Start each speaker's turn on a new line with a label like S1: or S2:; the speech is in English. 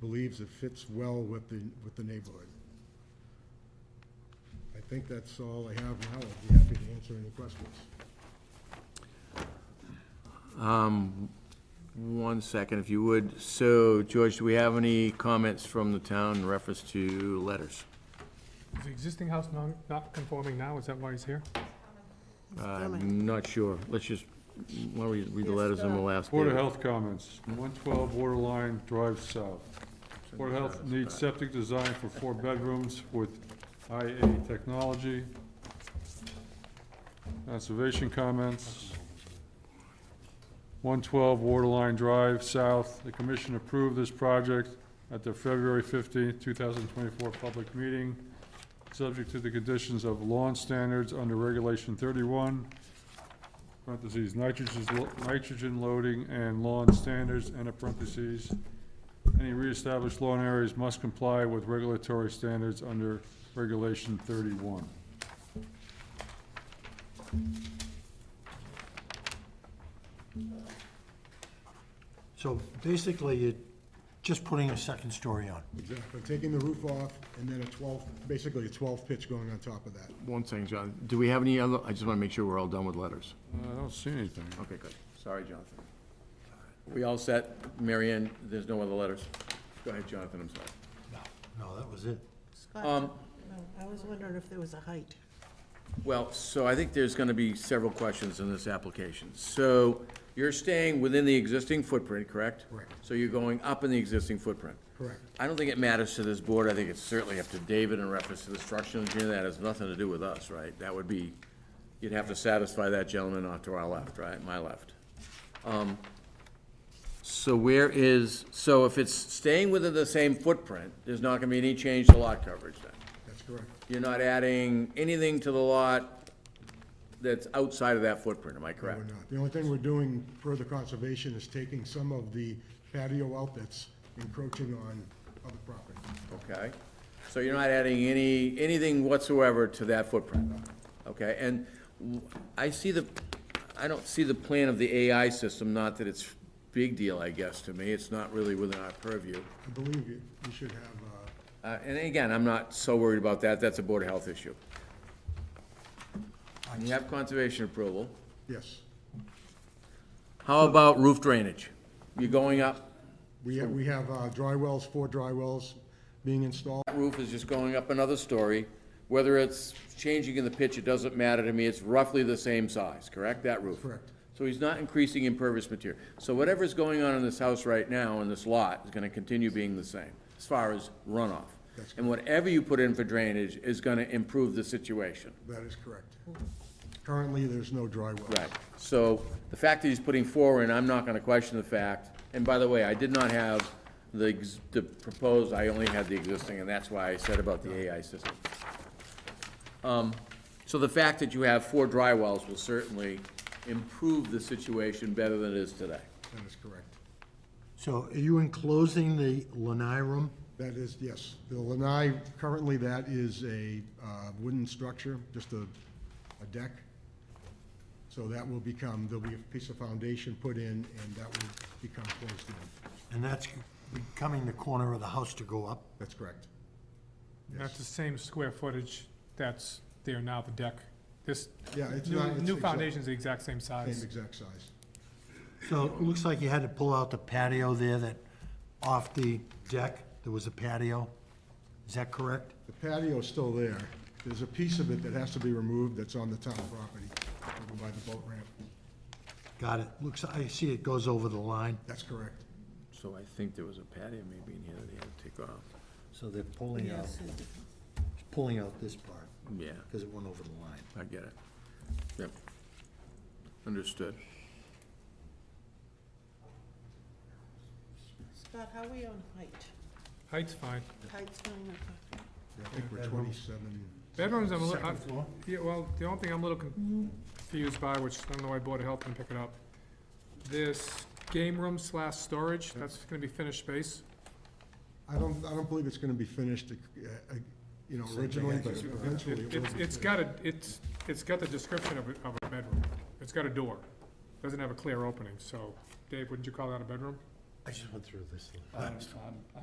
S1: believes it fits well with the, with the neighborhood. I think that's all I have now. I'd be happy to answer any questions.
S2: Um, One second, if you would. So, George, do we have any comments from the town in reference to letters?
S3: Is the existing house non, not conforming now, is that why he's here?
S2: Uh, I'm not sure. Let's just, why don't we read the letters and we'll ask.
S4: Board of
S2: David.
S4: Health comments, 112 Waterline Drive South. Board of Health needs septic design for four bedrooms with IA technology. Conservation comments. 112 Waterline Drive South, the commission approved this project at their February 15th, 2024 public meeting, subject to the conditions of lawn standards under Regulation 31, parentheses, nitrogen, nitrogen loading and lawn standards, and a parentheses. Any reestablished lawn areas must comply with regulatory standards under Regulation thirty-one.
S5: So basically, you're just putting a second story on.
S1: Exactly. Taking the roof off and then a 12, basically a 12 pitch going on top of that.
S2: One second, John. Do we have any other, I just want to make sure we're all done with letters.
S4: I don't see anything.
S2: Okay, good. Sorry, Jonathan. We all set? Mary Ann, there's no other letters? Go ahead, Jonathan, I'm sorry.
S5: No, no, that was it.
S2: Um,
S6: Scott, no, I was wondering if there was a height.
S2: Well, so I think there's gonna be several questions in this application. So you're staying within the existing footprint, correct?
S1: Correct.
S2: So you're going up in the existing footprint?
S1: Correct.
S2: I don't think it matters to this board. I think it's certainly up to David in reference to the structural engineer. That has nothing to do with us, right? That would be, you'd have to satisfy that gentleman off to our left, right, my left. Um, So where is, so if it's staying within the same footprint, there's not gonna be any change to lot coverage then?
S1: That's correct.
S2: You're not adding anything to the lot that's outside of that footprint, am I
S1: No, We're
S2: correct?
S1: not. The only thing we're doing for the conservation is taking some of the patio out that's encroaching on other property.
S2: Okay? So you're not adding any, anything whatsoever to that footprint? Okay, and w- I see the, I don't see the plan of the AI system, not that it's big deal, I guess, to me. It's not really within our purview.
S1: I believe you, you should have, uh,
S2: Uh, and again, I'm not so worried about that. That's a Board of Health issue. You have conservation approval.
S1: yes.
S2: How about roof drainage? You're going up,
S1: We have, we have uh, dry wells, four dry wells being installed.
S2: roof is just going up another story. Whether it's changing in the pitch, it doesn't matter to me, it's roughly the same size, correct, that roof?
S1: Correct.
S2: So he's not increasing impervious material. So whatever's going on in this house right now, in this lot, is gonna continue being the same, as far as runoff.
S1: That's
S2: And whatever you put in for drainage is gonna improve the situation.
S1: That is correct. Currently, there's no dry wells.
S2: Right, so the fact that he's putting four in, I'm not gonna question the fact, and by the way, I did not have the, ex- the proposed, I only had the existing, and that's why I said about the AI system. Um, so the fact that you have four dry wells will certainly improve the situation better than it is today.
S1: That is correct.
S5: So are you enclosing the lanai room?
S1: That is, yes. The lanai, currently that is a uh, wooden structure, just a, a deck. So that will become, there'll be a piece of foundation put in, and that will become closed in.
S5: And that's becoming the corner of the house to go up?
S1: That's correct.
S3: That's the same square footage that's there now, the deck. This
S1: Yeah, it's not-
S3: new,
S1: it's
S3: new
S1: exact-
S3: foundation's the exact same
S1: Same
S3: size.
S1: exact size.
S5: So it looks like you had to pull out the patio there that, off the deck, there was a patio. Is that correct?
S1: The patio's still there. There's a piece of it that has to be removed that's on the town property, over by the boat ramp.
S5: Got it. Looks, I see it goes over the line.
S1: That's correct.
S2: So I think there was a patio maybe in here that he had to take off.
S5: So they're pulling out, pulling out this part,
S2: Yeah,
S5: because it went over the line.
S2: I get it. Yep. Understood.
S6: Scott, how are we on height?
S3: Height's fine.
S6: Height's going up.
S1: Yeah, I think we're twenty-seven.
S3: Bedrooms, I'm a little,
S5: Second
S3: I-
S5: floor?
S3: yeah, well, the only thing I'm a little confused by, which I don't know why Board of Health can pick it up, this game room slash storage, that's gonna be finished space.
S1: I don't, I don't believe it's gonna be finished, uh, uh, you know, originally, but
S3: It-
S1: eventually Oh, it will
S3: It's,
S1: be.
S3: it's got a, it's, it's got the description of a, of a bedroom. It's got a door. Doesn't have a clear opening, so, Dave, wouldn't you call that a bedroom?
S5: I just went through this.